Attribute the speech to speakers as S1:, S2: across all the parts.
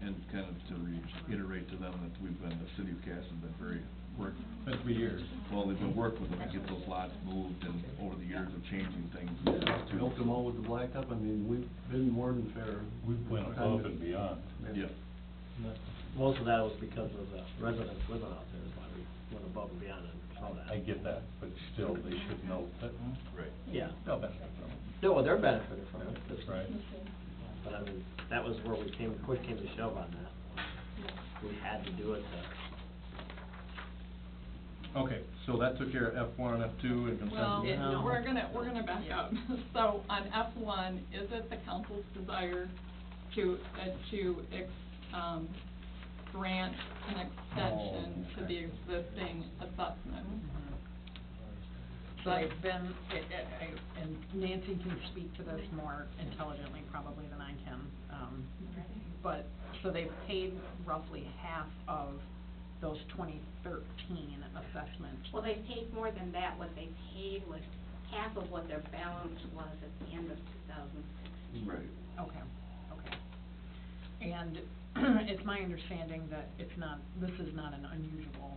S1: And kind of to reiterate to them that we've been, the city of Cass has been very, work,
S2: Been three years.
S1: well, they've been working with them to get those lots moved and over the years of changing things.
S3: We helped them all with the blacktop, I mean, we've been more than fair.
S2: We went above and beyond.
S1: Yeah,
S4: Most of that was because of the residents living out there, is why we went above and beyond and saw that.
S2: I get that, but still, they should know that
S1: right.
S4: Yeah,
S2: they'll benefit from it.
S4: no, they're benefiting from it.
S2: That's right.
S4: But I mean, that was where we came, push came to shove on that. We had to do it to,
S2: Okay, so that took care of F one, F two, and consent.
S5: Well,
S4: it- No.
S5: we're gonna, we're gonna back up. So on F one, is it the council's desire to, uh, to, ex- um, grant an extension
S2: Oh,
S5: to the existing assessment?
S6: So it's been, it- it- I- and Nancy can speak to this more intelligently probably than I can. um, But, so they've paid roughly half of those 2013 assessments.
S7: Well, they paid more than that, what they paid was half of what their balance was at the end of two thousand sixteen.
S1: Right.
S6: Okay, okay. And it's my understanding that it's not, this is not an unusual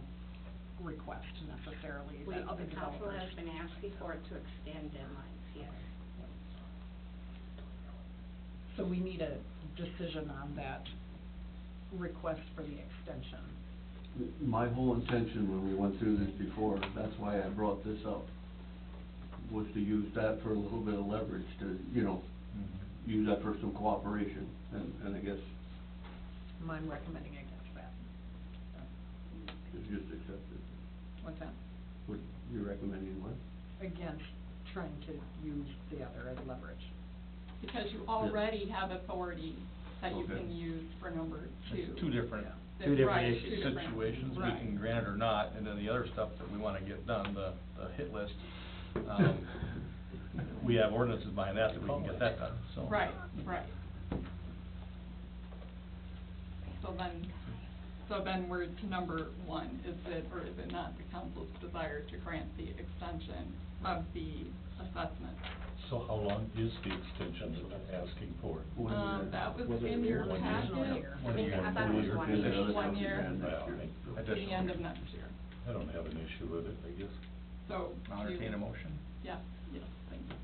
S6: request necessarily
S7: We,
S6: that other
S7: the council
S6: developers.
S7: has been asking for it to extend deadlines, yes.
S6: So we need a decision on that request for the extension.
S3: My whole intention when we went through this before, that's why I brought this up, was to use that for a little bit of leverage to, you know,
S2: Mhm.
S3: use that for some cooperation, and, and I guess
S6: And I'm recommending against that.
S3: it's just accepted.
S6: What's that?
S3: What, you're recommending what?
S6: Against trying to use the other as leverage.
S5: Because you already have authority that you
S3: Okay.
S5: can use for number two.
S2: It's two different
S6: Yeah.
S5: That-
S4: Two different
S5: right,
S4: issues.
S5: two different-
S2: situations, we can
S5: right.
S2: grant it or not, and then the other stuff that we wanna get done, the, the hit list.
S3: Oh.
S2: um, We have ordinances behind that, that we can get that done, so.
S5: Right, right. So then, so then we're to number one, is it, or is it not the council's desire to grant the extension of the assessment?
S2: So how long is the extension that they're asking for?
S3: One
S5: Um,
S3: year.
S5: that was
S3: Was it
S5: in your
S3: one year?
S5: packet.
S6: Original year.
S2: One year.
S7: I thought it was
S2: Two years.
S7: one
S3: And the other
S7: year.
S3: stuff
S5: One
S3: we
S5: year.
S3: had next
S2: Well,
S3: year.
S2: I- I
S5: to the
S2: just-
S5: end of next year.
S2: I don't have an issue with it, I guess.
S5: So.
S2: I'll
S5: do you-
S2: entertain a motion.
S5: Yes, yes, thank you.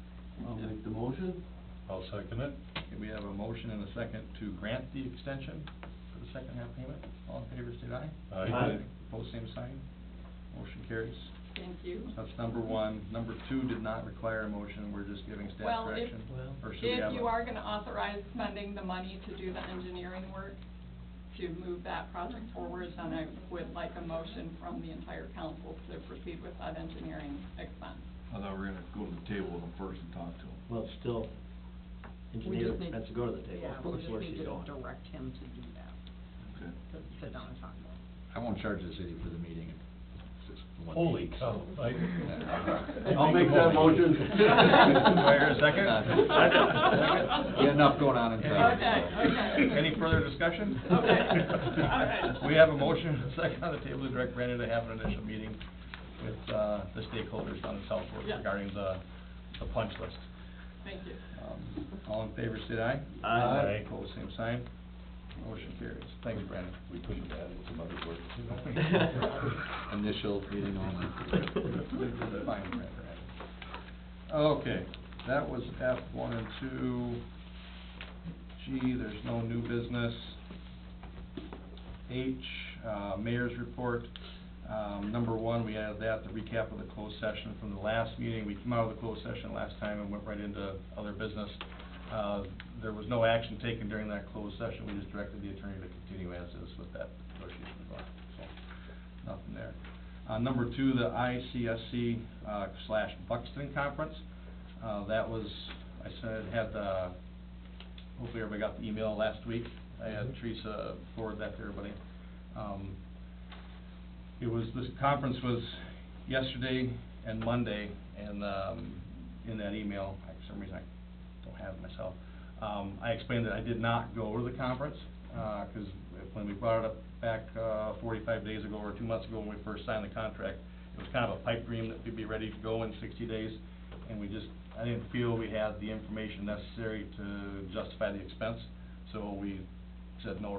S3: I'll make the motion.
S2: I'll second it. Okay, we have a motion and a second to grant the extension for the second half payment. All in favor, state aye.
S4: Aye. Aye.
S2: Opposed, same sign. Motion carries.
S5: Thank you.
S2: That's number one. Number two did not require a motion, we're just giving staff
S5: Well, if-
S2: direction.
S4: Well-
S2: Or should we have a-
S5: If you are gonna authorize spending the money to do the engineering work, to move that project forward, then I would like a motion from the entire council to proceed with that engineering expense.
S1: I thought we were gonna go to the table with them first and talk to them.
S4: well, it's still,
S6: We
S4: engineer
S6: just need.
S4: has to go to the table.
S6: Yeah,
S4: Look
S6: we just
S4: where
S6: need
S4: she's
S6: to
S4: going.
S6: direct him to do that,
S1: Okay.
S6: to sit down and talk about it.
S8: I won't charge the city for the meeting. It's just one
S2: Holy
S8: meeting.
S2: cow. I-
S3: I'll make that motion.
S2: Do I hear a second?
S8: We had enough going on in town.
S5: Okay, okay.
S2: Any further discussion?
S5: Okay, all right.
S2: We have a motion and a second on the table to direct Brandon to have an initial meeting with, uh, the stakeholders on the South Fork
S5: Yeah.
S2: regarding the, the punch list.
S5: Thank you.
S2: Um, All in favor, say aye.
S4: Aye.
S2: Aye. Pose same sign. Motion carries. Thanks, Brandon.
S8: We couldn't add some other words
S2: Initial
S8: Initial meeting only.
S2: Fine, Brandon. Okay, that was F one and two. G, there's no new business. H, uh, mayor's report. Um, number one, we added that, the recap of the closed session from the last meeting. We came out of the closed session last time and went right into other business. Uh, there was no action taken during that closed session. We just directed the attorney to continue as is with that negotiation going, so, nothing there. Uh, number two, the ICSC, uh, slash Buxton Conference. Uh, that was, I said, had the, hopefully everybody got the email last week. I had Teresa forward that to everybody. Um, it was, this conference was yesterday and Monday, and, um, in that email, I- for some reason I don't have it myself, um, I explained that I did not go to the conference, uh 'cause cause when we brought it up back, uh, forty-five days ago or two months ago when we first signed the contract, it was kind of a pipe dream that we'd be ready to go in sixty days, and we just, I didn't feel we had the information necessary to justify the expense, so we said no